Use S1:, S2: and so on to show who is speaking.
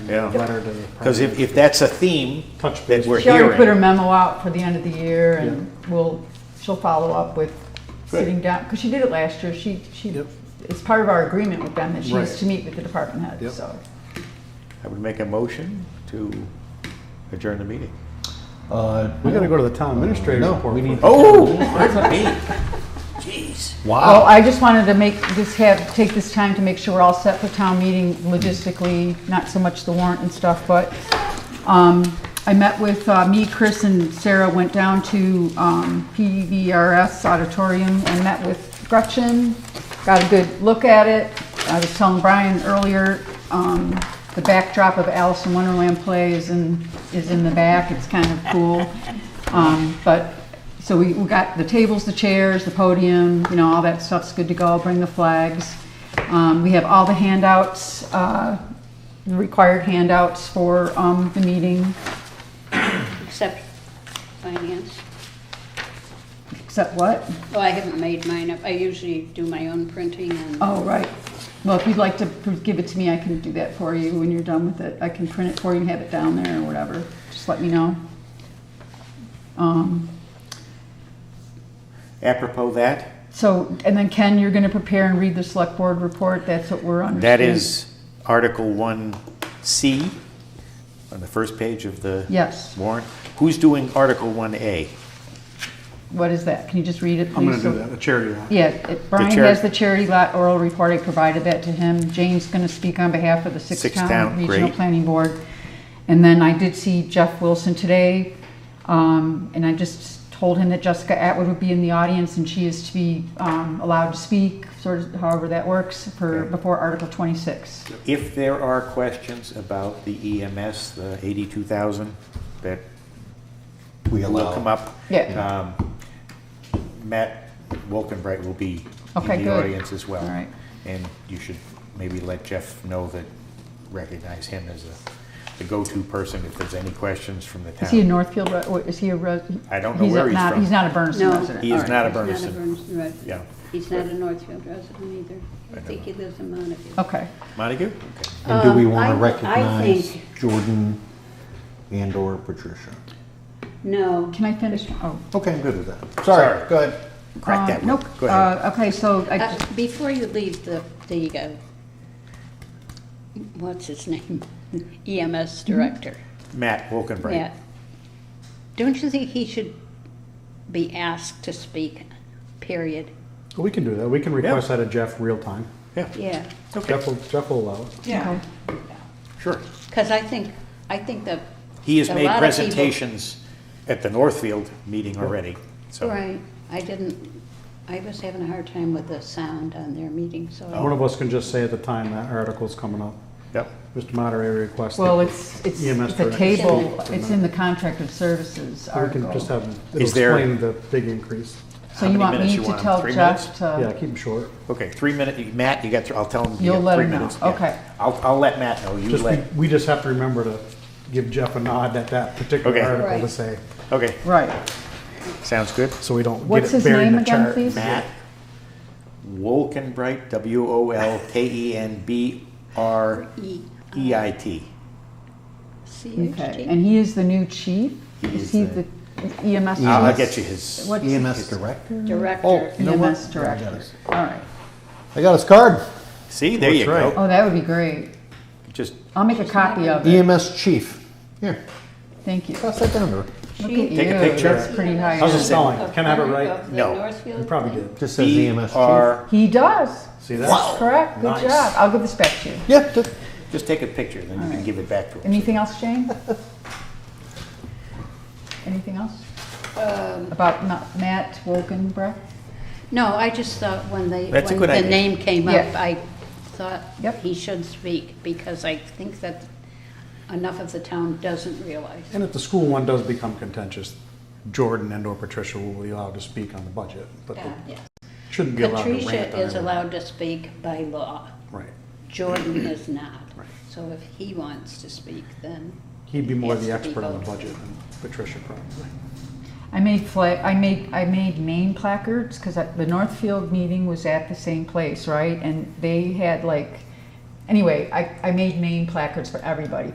S1: Yeah,
S2: letter to the.
S1: because if, if that's a theme
S2: Touch
S1: that
S2: base.
S1: we're
S3: She already put her
S1: hearing.
S3: memo out for the end of the year and we'll, she'll follow up with sitting down, because she did it last year. She, she,
S2: Yep.
S3: it's part of our agreement with them that she needs
S2: Right.
S3: to meet with the department head,
S2: Yep.
S3: so.
S1: I would make a motion to adjourn the meeting.
S4: Uh,
S2: We gotta go to the town administrator's
S4: No,
S2: report.
S4: we need-
S2: first.
S1: Oh, me. Jeez.
S3: Well, I just wanted to make, just have, take this time to make sure we're all set for town meeting logistically, not so much the warrant and stuff, but, um, I met with, uh, me, Chris, and Sarah went down to, um, PVRS auditorium and met with Gretchen, got a good look at it. I was telling Brian earlier, um, the backdrop of Alice in Wonderland play is in, is in the back, it's kind of cool. Um, but so we, we got the tables, the chairs, the podium, you know, all that stuff's good to go, bring the flags. Um, we have all the handouts, uh, the required handouts for, um, the meeting,
S5: Except finance.
S3: except what?
S5: Oh, I haven't made mine up. I usually do my own printing and,
S3: Oh, right. Well, if you'd like to pr- give it to me, I can do that for you when you're done with it. I can print it for you and have it down there or whatever. Just let me know. Um,
S1: Apropos that,
S3: so, and then Ken, you're gonna prepare and read the select board report. That's what we're on.
S1: that is Article one C on the first page of the
S3: Yes.
S1: warrant. Who's doing Article one A?
S3: What is that? Can you just read it, please?
S2: I'm gonna do
S3: So-
S2: that, a charity lot.
S3: Yeah, it- Brian
S1: chair-
S3: has the charity lot oral report, I provided that to him. Jane's going to speak on behalf of the
S1: Sixth
S3: Six-Town
S1: Town,
S3: Regional
S1: great.
S3: Planning Board. And then I did see Jeff Wilson today, um, and I just told him that Jessica Atwood would be in the audience, and she is to be um, allowed to speak, sort of however that works, for,
S1: Okay.
S3: before Article 26.
S1: If there are questions about the EMS, the eighty-two thousand, that
S4: we
S1: will
S4: allow.
S1: come up.
S3: Yeah.
S1: Um, Matt Wolkenbright will be
S3: Okay,
S1: in the
S3: good.
S1: audience as well.
S3: All right.
S1: And you should maybe let Jeff know that, recognize him as a- the go-to person if there's any questions from the town.
S3: Is he a Northfield, re- or is he a, res-
S1: I don't know
S3: a-
S1: where he's
S3: not-
S1: from.
S3: He's not a Berniston
S5: No.
S3: resident?
S1: He is
S3: All
S1: not a
S5: He's not a
S1: Berniston.
S5: Berniston resident.
S1: Yeah.
S5: he's not a Northfield resident either. I
S1: know.
S5: think he lives in Montague.
S3: Okay,
S1: Montague? Okay.
S4: And do we
S5: Um,
S4: want
S5: I-
S4: to
S5: I
S4: recognize
S5: think-
S4: Jordan and/or Patricia?
S5: No,
S3: can I finish? Oh.
S4: Okay, I'm good with that.
S1: Sorry.
S4: Sorry, go ahead.
S1: Crack that
S3: Um,
S1: one.
S3: Nope.
S1: Go ahead.
S3: Uh, Okay, so I
S5: Uh, before you leave the, the, uh, what's his name? EMS director.
S3: Uh,
S1: Matt Wolkenbright.
S5: Yeah. Don't you think he should be asked to speak, period?
S2: We can do that, we can request that of Jeff real time.
S5: Yeah.
S2: Jeff will, Jeff will allow it.
S3: Okay.
S1: Sure.
S5: Because I think, I think that.
S1: He has
S5: a
S1: made
S5: lot of people-
S1: presentations at the Northfield meeting already, so.
S5: Right, I didn't, I was having a hard time with the sound on their meeting, so. I-
S2: One of us can just say at the time that article's coming up,
S1: Yep.
S2: Mr. Moderator requests. that
S3: Well, it's, it's
S2: EMS
S3: the
S2: director
S3: table,
S2: speak for a
S3: it's
S2: minute.
S3: in the contracted services
S2: We can just
S3: article.
S2: have, it'll
S1: Is there-
S2: explain the big increase.
S3: So
S1: How
S3: you
S1: many
S3: want
S1: minutes
S3: me
S1: you
S3: to
S1: want?
S3: tell
S1: Three
S3: Jeff
S2: Yeah,
S3: to,
S2: keep them short.
S1: Okay, three minutes, Matt, you got, thr- I'll tell him. you
S3: You'll
S1: got
S3: let
S1: three
S3: him know.
S1: minutes. Yeah.
S3: Okay.
S1: I'll, I'll let Matt know, you
S2: Just,
S1: let,
S2: we- we just have to remember to give Jeff a nod at that particular
S1: Okay.
S2: article to
S5: Right.
S2: say,
S1: okay,
S3: right,
S1: sounds good.
S2: so we don't get
S3: What's
S2: it
S3: his
S2: buried in
S3: name
S2: the
S3: again,
S2: chart.
S3: please?
S1: Matt Wolkenbright, W O L K E N B R
S5: E,
S1: E I T.
S5: C, H,
S3: okay.
S5: T.
S3: And he is the new chief?
S1: He
S3: Is
S1: is
S3: he
S1: the-
S3: the E EMS?
S1: I'll I'll
S3: chief?
S1: get you his. E
S3: What's
S4: EMS
S3: his-
S4: E director?
S3: Oh,
S5: Director.
S4: you know what?
S3: EMS
S4: I got
S3: director,
S4: us.
S3: all right.
S4: I got his card.
S1: See, there you
S2: That's right.
S1: go.
S3: Oh, that would be great.
S1: Just,
S3: I'll make a copy of it,
S4: EMS E chief. Here,
S3: thank you. E Look
S4: pass that down to her.
S3: at
S5: She-
S3: you,
S1: Take a picture.
S3: that's pretty high.
S2: How's it
S3: end.
S2: spelling?
S5: of
S2: Can I have it
S5: Berwick,
S2: right?
S5: of the
S1: No.
S5: Northfield
S2: You probably
S5: thing.
S2: did.
S4: Just says
S3: E
S4: EMS chief.
S1: BR
S3: He does,
S2: See that?
S3: correct, good
S2: Nice.
S3: job. I'll give this back to you.
S4: Yeah, just-
S1: just take a picture, then you can give it back to him.
S3: Anything else, Jane? Anything else?
S5: Um,
S3: About Ma- Matt Wolkenbrock?
S5: No, I just thought when they,
S1: That's a
S5: when
S1: good
S5: the
S1: idea.
S5: name came up,
S3: Yeah.
S5: I thought
S3: Yep.
S5: he should speak, because I think that enough of the town doesn't realize.
S2: And if the school one does become contentious, Jordan and or Patricia will be allowed to speak on the budget, but
S5: that,
S2: they
S5: yes.
S2: shouldn't be allowed to rant on
S5: Patricia is
S2: everything.
S5: allowed to speak by law.
S2: Right.
S5: Jordan is not.
S2: Right.
S5: So if he wants to speak, then.
S2: He'd be more
S5: Yes,
S2: the
S5: to
S2: expert on the
S5: voted.
S2: budget than Patricia probably.
S3: I made fla- I made I made name placards because the Northfield meeting was at the same place, right? And they had like, anyway, I, I made name placards for everybody.